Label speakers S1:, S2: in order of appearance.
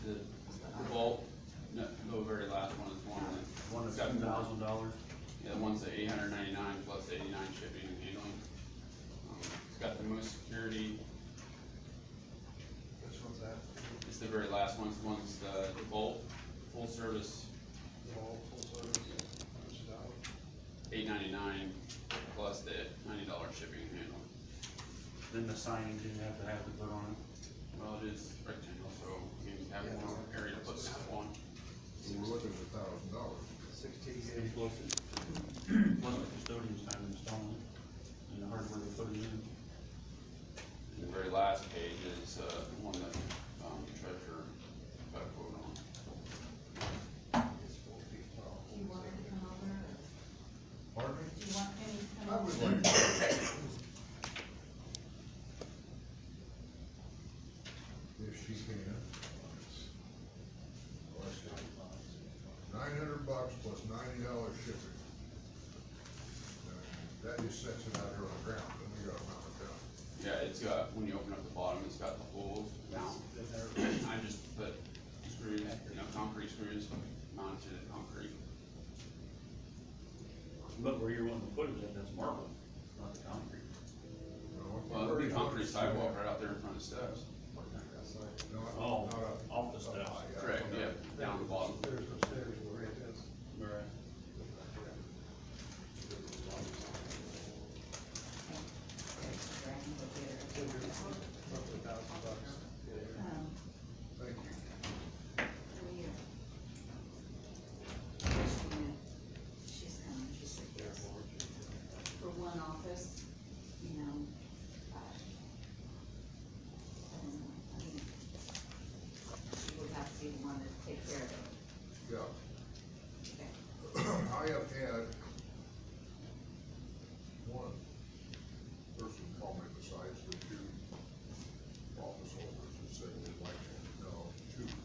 S1: eighty-nine shipping and handling. Um, It's got the most security,
S2: Which one's that?
S1: it's the very last one, it's the one's the the Volt, full service,
S2: The whole full service? Which is out?
S1: eight ninety-nine, plus the ninety dollar shipping and handling.
S3: Then the signage you have to have to put on
S1: Well, it is rectangle, so you can have more area to put stuff on.
S4: We're looking at a thousand dollars.
S2: Sixteen
S3: it.
S2: gauge.
S3: close. Plus the custodian's time installing it, and the hardware to put it in.
S1: The very last page is, uh, one that, um, treasurer got a quote on.
S2: It's four feet tall.
S5: Do you want him to come over, or
S3: Pardon me?
S5: do you want him to come
S4: I
S5: over?
S4: would like, to- if she can. Nine hundred bucks plus ninety dollars shipping. Uh, That just sets it out here on the ground, then we gotta mount it down.
S1: Yeah, it's got, when you open up the bottom, it's got the holes down. I just put screws, you know, concrete screws, mounted to the concrete.
S3: But where you're wanting to put it at, that's marble, not the concrete.
S4: No,
S1: Well, it'd be concrete sidewalk right out there in front of steps.
S4: Not,
S3: Oh,
S4: not up-
S3: off the
S4: up
S3: steps.
S4: high,
S1: Correct, yeah, down the bottom.
S2: There's no stairs where it is.
S3: Right.
S2: Roughly thousand bucks. Yeah.
S5: Um,
S4: Thank you.
S5: for you. She's coming, she said yes. For one office, you know, uh, I don't know, I mean, she would have to be the one to take care of it,
S4: Yeah.
S5: okay?
S4: I have had